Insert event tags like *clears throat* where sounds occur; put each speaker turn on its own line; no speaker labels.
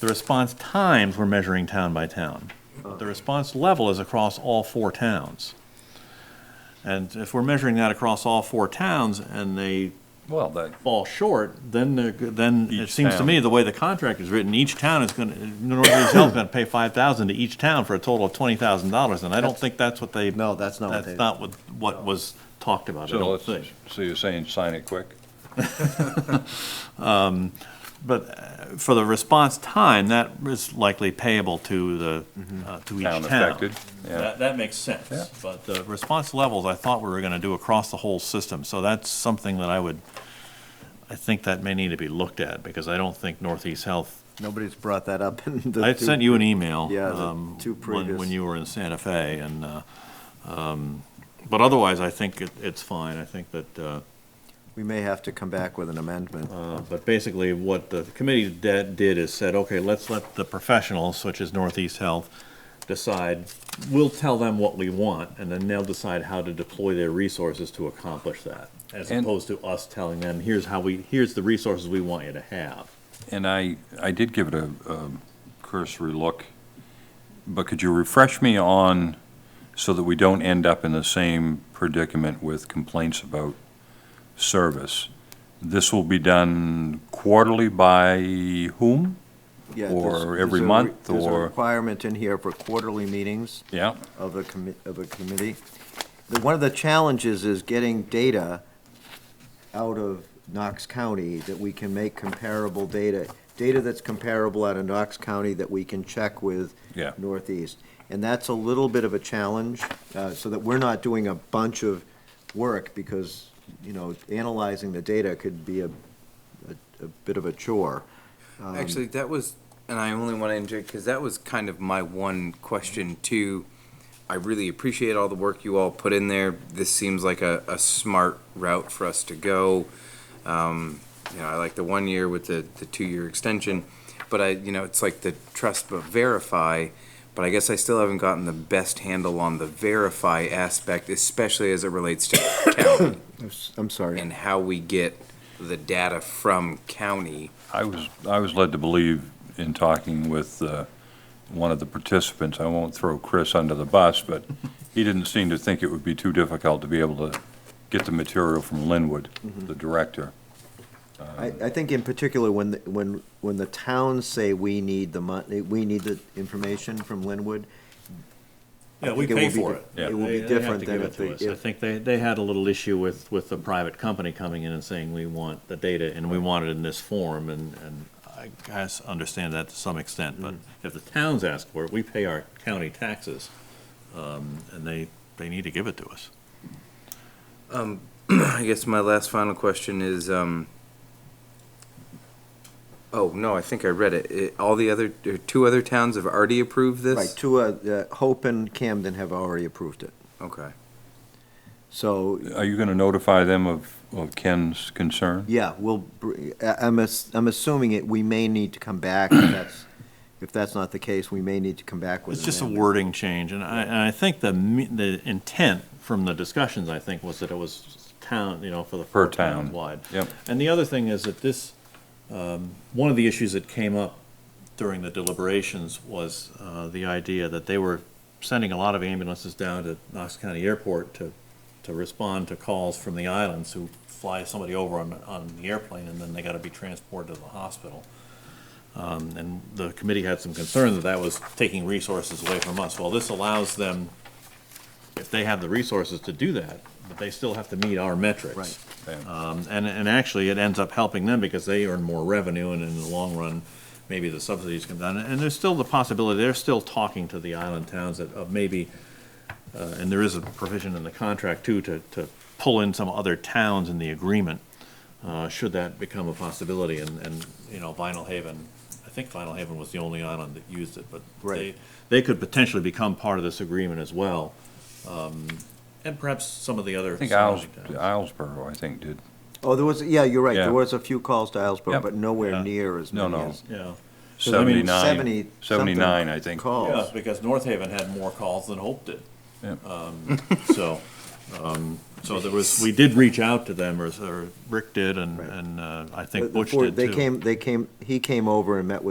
The response times, we're measuring town by town. But The response level is across all four towns. And if we're measuring that across all four towns and they
Well, that,
fall short, then, the- then it
Each
seems to
town.
me, the way the contract is written, each town is gonna, Northeast Health's gonna pay five thousand to each town for a total of twenty thousand dollars, and I don't think that's what they.
No, that's not what they-
That's not what, what was talked about, I
so
don't
let's,
think.
so you're saying sign it quick?
But uh, for the response time, that is likely payable to the, uh, to each town.
Town affected, yeah.
That, that makes
Yeah.
sense, but the response levels, I thought we were gonna do across the whole system, so that's something that I would, I think that may need to be looked at, because I don't think Northeast Health
Nobody's brought that up *laughs* in the.
I sent you an email.
Yeah, the
um,
two
when-
previous-
When you were in Santa Fe, and, uh, um, but otherwise, I think it- it's fine. I think that, uh,
We may have to come back with an amendment.
uh, but basically, what the committee de- did is said, okay, let's let the professionals, such as Northeast Health, decide, we'll tell them what we want, and then they'll decide how to deploy their resources to accomplish that, as
And-
opposed to us telling them, here's how we, here's the resources we want you to have.
And I, I did give it a a cursory look, but could you refresh me on, so that we don't end up in the same predicament with complaints about service? This will be done quarterly by whom?
Yeah,
or
there's- there's
every
a re-
month,
There's a
or-
requirement in here for quarterly meetings
Yeah,
of a commi, of a committee. The- One of the challenges is getting data out of Knox County that we can make comparable data, data that's comparable out of Knox County that we can check with
Yeah.
Northeast. And that's a little bit of a challenge, uh, so that we're not doing a bunch of work, because, you know, analyzing the data could be a, a, a bit of a chore. Um,
Actually, that was, and I only want to interject because that was kind of my one question too. I really appreciate all the work you all put in there. This seems like a, a smart route for us to go. Um, you know, I like the one year with the, the two year extension, but I, you know, it's like the trust but verify. But I guess I still haven't gotten the best handle on the verify aspect, especially as it relates to county
I'm s- I'm sorry.
and how we get the data from county.
I was, I was led to believe in talking with uh, one of the participants, I won't throw Chris under the bus, but he didn't seem to think it would be too difficult to be able to get the material from Linwood,
Mm-hmm.
the director.
I, I think in particular, when, the- when, when the towns say we need the money, we need the information from Linwood. I
Yeah, we
think it
pay
will be
for
di-
it.
Yeah.
It will
They-
be
they have
different
to
than
give
if
it to
they,
us. I
if,
think they, they had a little issue with, with the private company coming in and saying, we want the data and we want it in this form, and, and I guess understand that to some extent,
Mm.
but if the towns ask for it, we pay our county taxes, um, and they, they need to give it to us.
Um, *clears throat* I guess my last final question is, um, oh, no, I think I read it. It- All the other, or two other towns have already approved this?
right, two, uh, uh, Hope and Camden have already approved it.
Okay.
So,
Are you going to notify them of, of Ken's concern?
yeah, we'll, br- I- I'm, ass- I'm assuming it, we may need to come back if that's, if that's not the case, we may need to come back with.
It's
an
just a
amendment.
wording change, and I, and I think the, me- the intent from the discussions, I think, was that it was town, you know, for the.
Per
four towns
town.
Wide.
Yep.
And the other thing is that this, um, one of the issues that came up during the deliberations was, uh, the idea that they were sending a lot of ambulances down to Knox County Airport to, to respond to calls from the islands who fly somebody over on, on the airplane, and then they gotta be transported to the hospital. Um, and the committee had some concern that that was taking resources away from us. Well, this allows them, if they have the resources to do that, but they still have to meet our metrics.
Right.
Yeah.
Um, and, and actually, it ends up helping them because they earn more revenue, and in the long run, maybe the subsidies come down. And there's still the possibility, they're still talking to the island towns that, of maybe, uh, and there is a provision in the contract too, to, to pull in some other towns in the agreement, uh, should that become a possibility, and, and, you know, Vinyl Haven, I think Vinyl Haven was the only island that used it, but they,
Right.
they could potentially become part of this agreement as well, um, and perhaps some of the other.
I think Isles,
surrounding towns.
Islesboro, I think, did.
Oh, there was, yeah, you're right,
Yeah.
there was a few calls to Islesboro,
Yep.
but nowhere
Yeah.
near as
No,
many
no.
as.
Yeah.
79.
So, I mean,
70 something
79, I think.
Calls.
Yeah, because North Haven had more calls than Hope did.
Yeah.
Um, So, um, so there was, we did reach out to them, or, or Rick did, and,
Right.
and uh, I
The-
think
the
Butch
four-
did too.
They came, they came, he came over and met with